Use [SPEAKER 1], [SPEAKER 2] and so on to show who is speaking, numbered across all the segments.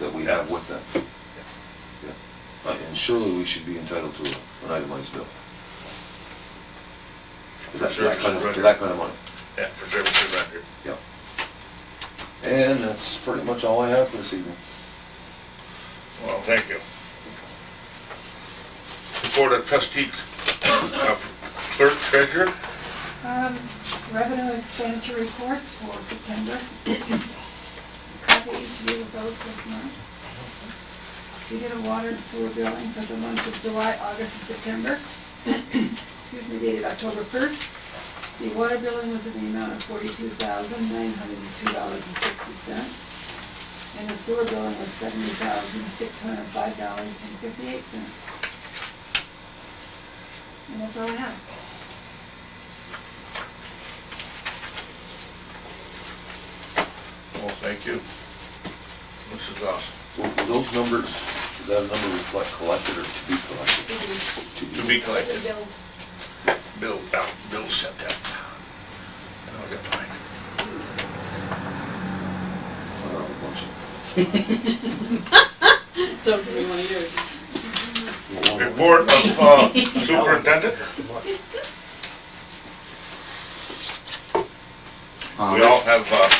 [SPEAKER 1] that we have with them. Yeah. Uh, And surely we should be entitled to a- an itemized bill. For that-
[SPEAKER 2] sure,
[SPEAKER 1] that kind of-
[SPEAKER 2] sure.
[SPEAKER 1] For that kind of money,
[SPEAKER 2] Yeah, for services rendered.
[SPEAKER 1] yeah. And that's pretty much all I have for this evening.
[SPEAKER 2] Well, thank you. Report of trustee, uh, clerk treasurer,
[SPEAKER 3] Um, revenue expenditure reports for September. Copy each view of those this month. We did a water and sewer billing for the months of July, August, and September. Excuse me, dated October first. The water billing was in the amount of forty-two thousand, nine hundred and two dollars and sixty cents. And the sewer billing was seventy thousand, six hundred and five dollars and fifty-eight cents. And that's all I have.
[SPEAKER 2] well, thank you. This is awesome.
[SPEAKER 1] Will will those numbers, is that a number reflect collected or to be collected? To
[SPEAKER 2] To be
[SPEAKER 3] The
[SPEAKER 2] collected,
[SPEAKER 3] bill
[SPEAKER 2] Bill, uh, Bill sent that. I'll get mine.
[SPEAKER 1] Uh, once-
[SPEAKER 4] So do we want to use?
[SPEAKER 2] Report of uh, superintendent, we all have uh,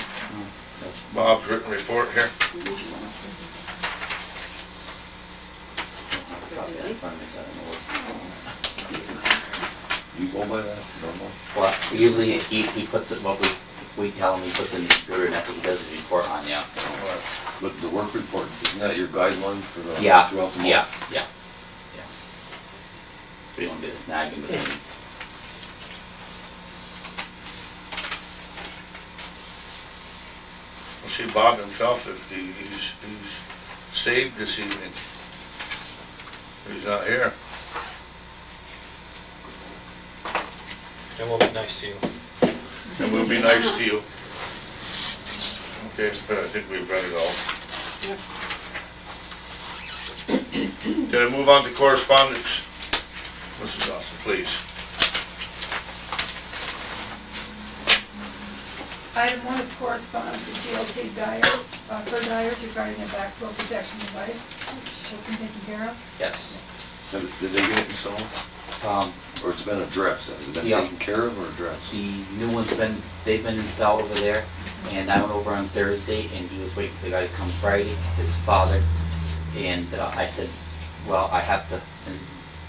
[SPEAKER 2] Bob's written report here.
[SPEAKER 1] You go by that, normal?
[SPEAKER 5] Well, usually he, he puts it, what we, we tell him, he puts it in the computer, and that's what he does his report on, yeah.
[SPEAKER 1] But the work report, isn't that your guideline for the,
[SPEAKER 5] Yeah,
[SPEAKER 1] throughout the month?
[SPEAKER 5] yeah, yeah, yeah. So you don't get a snag in between.
[SPEAKER 2] We'll see Bob himself, if he- he's, he's saved this evening. He's not here.
[SPEAKER 6] And we'll be nice to you.
[SPEAKER 2] And we'll be nice to you. Okay, but I think we've read it all. Can I move on to correspondence? Mrs. Austin, please.
[SPEAKER 3] Item one is correspondence to DLT Dyers, uh, for Dyers regarding the backflow protection device, which has been taken care of.
[SPEAKER 5] Yes.
[SPEAKER 1] Did did they get it installed,
[SPEAKER 5] Um,
[SPEAKER 1] or it's been addressed, has it been
[SPEAKER 5] Yeah.
[SPEAKER 1] taken care of or addressed?
[SPEAKER 5] the new one's been, they've been installed over there, and I went over on Thursday, and he was waiting for the guy to come Friday, his father, and uh, I said, well, I have to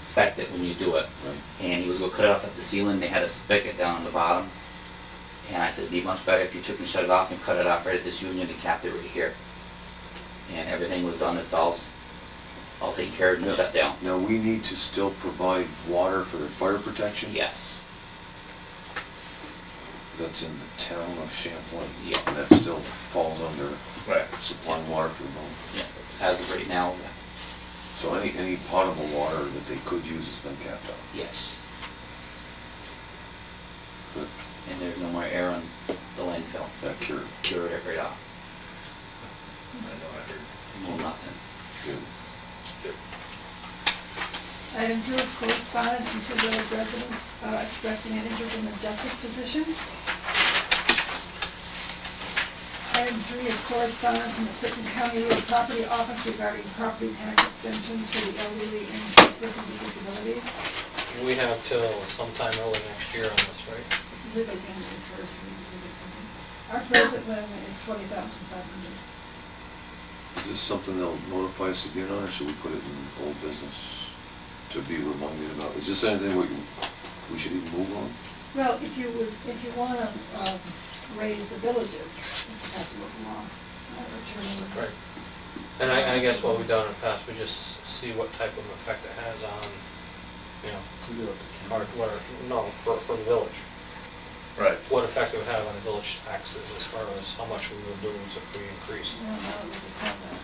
[SPEAKER 5] inspect it when you do it.
[SPEAKER 1] Right.
[SPEAKER 5] And he was gonna cut it off at the ceiling, they had a spigot down on the bottom, and I said, it'd be much better if you took and shut it off and cut it off right at this union and capped it right here. And everything was done, it's all, s- all taken care of and shut down.
[SPEAKER 1] Now, we need to still provide water for their fire protection?
[SPEAKER 5] Yes,
[SPEAKER 1] That's in the town of Champlain?
[SPEAKER 5] Yeah.
[SPEAKER 1] And that still falls under
[SPEAKER 2] Right.
[SPEAKER 1] supplying water for the moment?
[SPEAKER 5] yeah, as of right now,
[SPEAKER 1] So any, any potable water that they could use has been capped out?
[SPEAKER 5] yes.
[SPEAKER 1] Good.
[SPEAKER 5] and there's no more air on the landfill.
[SPEAKER 1] That cured,
[SPEAKER 5] Cured it right off.
[SPEAKER 2] I know, I heard.
[SPEAKER 5] Well, nothing.
[SPEAKER 1] good.
[SPEAKER 3] Item two is correspondence from two village residents uh, expressing an interest in the justice position. Item three is correspondence from the Clinton County Real Property Office regarding property tax exemptions for the elderly and persons with disabilities.
[SPEAKER 6] We have till sometime early next year on this, right?
[SPEAKER 3] Live again in first, we usually do something. Our present limit is twenty thousand five hundred.
[SPEAKER 1] Is this something they'll notify us again on, or should we put it in old business to be reminded about? Is this anything we, we should even move on?
[SPEAKER 3] Well, if you would, if you want to, um, raise the villages, it has to look long, uh, returning.
[SPEAKER 6] Right. And I, I guess what we've done in the past, we just see what type of effect it has on, you know, our, what our, no, for, for the village.
[SPEAKER 2] Right.
[SPEAKER 6] What effect it would have on the village taxes as far as how much we would lose if we increase.
[SPEAKER 3] No, no, we can tell that.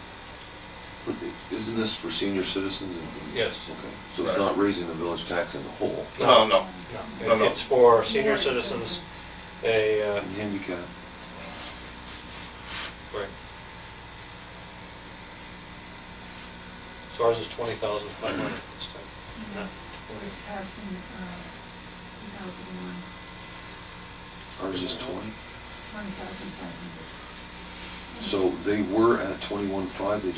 [SPEAKER 1] But i- Isn't this for senior citizens and?
[SPEAKER 6] Yes.
[SPEAKER 1] Okay, so it's not raising the village tax as a whole,
[SPEAKER 2] No, no, No,
[SPEAKER 6] No,
[SPEAKER 2] no.
[SPEAKER 6] it- it's for senior citizens, a, uh,
[SPEAKER 1] and handicap,
[SPEAKER 6] right. So ours is twenty thousand five hundred this time.
[SPEAKER 3] Yeah, It was passed in, uh, two thousand one,
[SPEAKER 1] ours is twenty.
[SPEAKER 3] twenty thousand five hundred.
[SPEAKER 1] So they were at twenty-one-five, they